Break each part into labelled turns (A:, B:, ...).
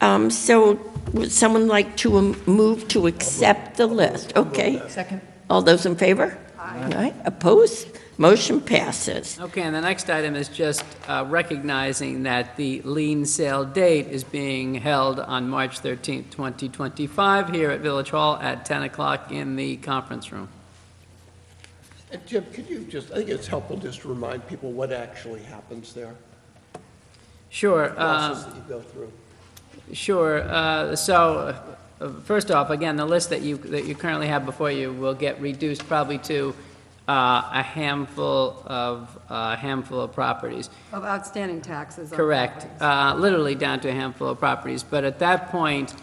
A: Um, So would someone like to um, move to accept the list? Okay.
B: Second.
A: All those in favor? Aye. Opposed? Motion passes.
C: Okay, and the next item is just uh, recognizing that the lien sale date is being held on March 13th, 2025, here at Village Hall at 10 o'clock in the conference room.
D: And Jim, could you just, I think it's helpful just to remind people what actually happens there,
C: Sure.
D: the
C: uh,
D: process that you go through.
C: Sure. uh, So, uh, first off, again, the list that you, that you currently have before you will get reduced probably to uh, a handful of, a handful of properties.
B: Of outstanding taxes. on
C: Correct,
B: properties.
C: uh, literally down to a handful of properties. But at that point,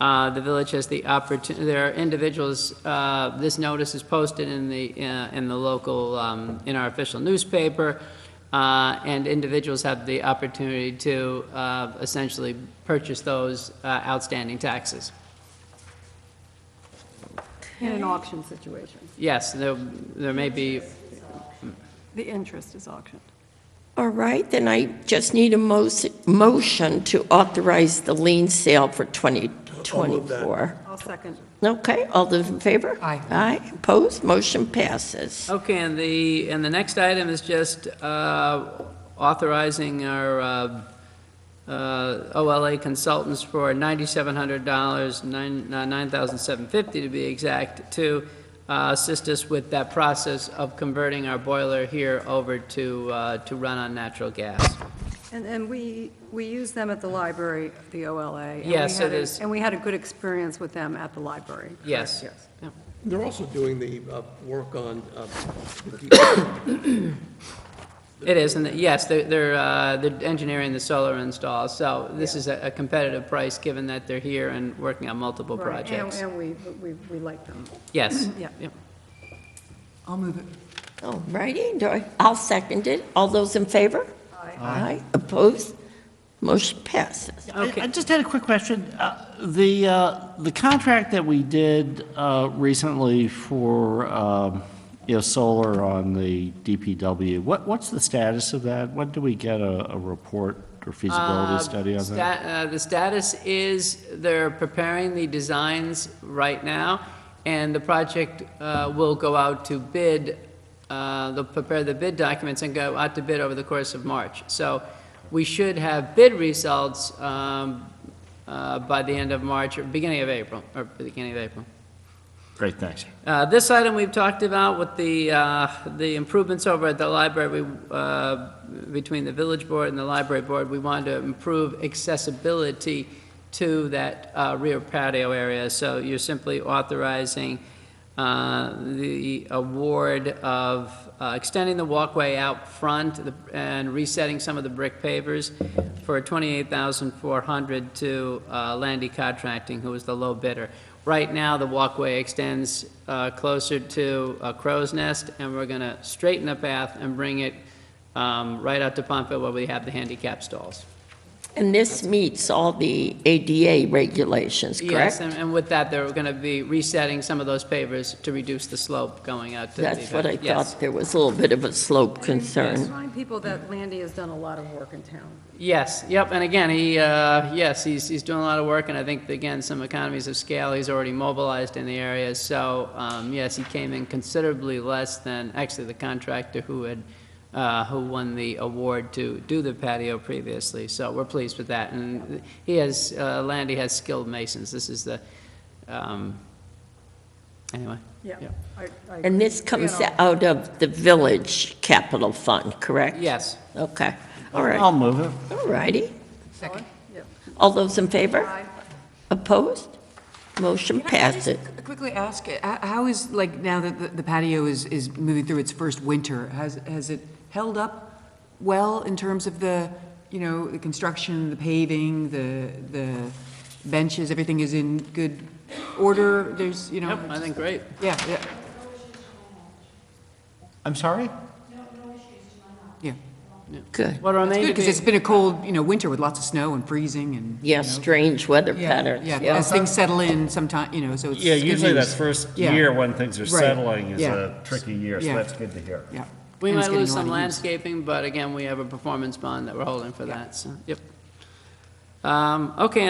C: uh, the village has the opportunity, there are individuals, uh, this notice is posted in the, uh, in the local, um, in our official newspaper, uh, and individuals have the opportunity to uh, essentially purchase those uh, outstanding taxes.
B: In an auction situation.
C: Yes, there, there may be,
B: The interest is auctioned.
A: All right, then I just need a mo- motion to authorize the lien sale for 2024.
B: I'll second.
A: Okay, all those in favor?
B: Aye.
A: Aye. Opposed? Motion passes.
C: Okay, and the, and the next item is just uh, authorizing our uh, uh, OLA consultants for $9,700, nine- uh, $9,750 to be exact, to uh, assist us with that process of converting our boiler here over to, uh, to run on natural gas.
B: And, and we, we use them at the library, the OLA. and we
C: Yes,
B: had
C: it
B: a-
C: is.
B: And we had a good experience with them at the library. correct?
C: Yes. Yeah.
D: They're also doing the uh, work on, uh, the-
C: It is, and yes, they're- they're, uh, they're engineering the solar install, so this is a a competitive price, given that they're here and working on multiple
B: Right, and-
C: projects.
B: And we, we, we like them.
C: Yes.
B: Yeah.
C: Yep.
E: I'll move it.
A: All righty, do I- I'll second it. All those in favor? Aye. Opposed? Motion passes.
F: I-
C: Okay.
F: I just had a quick question. Uh, The, uh, the contract that we did uh, recently for, um, you know, solar on the DPW, what, what's the status of that? When do we get a, a report or feasibility
C: Uh,
F: study on that?
C: sta- uh, The status is they're preparing the designs right now, and the project uh, will go out to bid, uh, they'll prepare the bid documents and go out to bid over the course of March. So we should have bid results um, uh, by the end of March or beginning of April, or beginning of April.
F: Great, thanks.
C: Uh, This item we've talked about with the, uh, the improvements over at the library, we, uh, between the village board and the library board, we wanted to improve accessibility to that uh, rear patio area. So you're simply authorizing uh, the award of uh, extending the walkway out front and resetting some of the brick pavers for 28400 to uh, Landy Contracting, who was the low bidder. Right now, the walkway extends uh, closer to uh, Crow's Nest, and we're going to straighten the path and bring it um, right out to Pontville where we have the handicap stalls.
A: And this meets all the ADA regulations,
C: Yes,
A: correct?
C: and- and with that, they're going to be resetting some of those pavers to reduce the slope going out to the...
A: That's what I
C: Yes.
A: thought. There was a little bit of a slope concern.
B: Remind people that Landy has done a lot of work in town.
C: Yes, yep, and again, he, uh, yes, he's, he's doing a lot of work, and I think, again, some economies of scale, he's already mobilized in the area, so, um, yes, he came in considerably less than, actually, the contractor who had, uh, who won the award to do the patio previously, so we're pleased with that, and he has, uh, Landy has skilled masons, this is the, um, anyway.
B: Yeah.
C: Yeah.
B: I- I-
A: And this
B: we
A: comes
B: had a-
A: out of the Village Capital Fund, correct?
C: Yes, Um,
A: Okay, all right,
F: I'll move it.
A: all righty.
B: Yeah.
A: All those in favor?
B: Aye.
A: Opposed? Motion passes.
E: Can I Quickly ask, h- how is, like, now that the- the patio is, is moving through its first winter, has, has it held up well in terms of the, you know, the construction, the paving, the, the benches, everything is in good order? There's, you know?
C: yep, I think, great.
E: Yeah, yeah,
F: I'm sorry?
E: yeah.
A: Good.
C: What
E: It's
C: remains to
E: good, because
C: be-
E: it's been a cold, you know, winter with lots of snow and freezing and.
A: Yeah, strange weather
E: Yeah,
A: patterns,
E: Yeah,
A: yeah.
E: as things settle in sometime, you know, so it's.
F: Yeah,
E: good
F: usually
E: news.
F: that first
E: Yeah.
F: year when things are
E: Right,
F: settling is
E: yeah.
F: a tricky year, so
E: Yeah.
F: that's good to hear.
E: Yeah.
C: We
E: And it's
C: might
E: getting
C: lose
E: a lot
C: some
E: of use.
C: landscaping, but again, we have a performance bond that we're holding for that, so, yep. Um, Okay,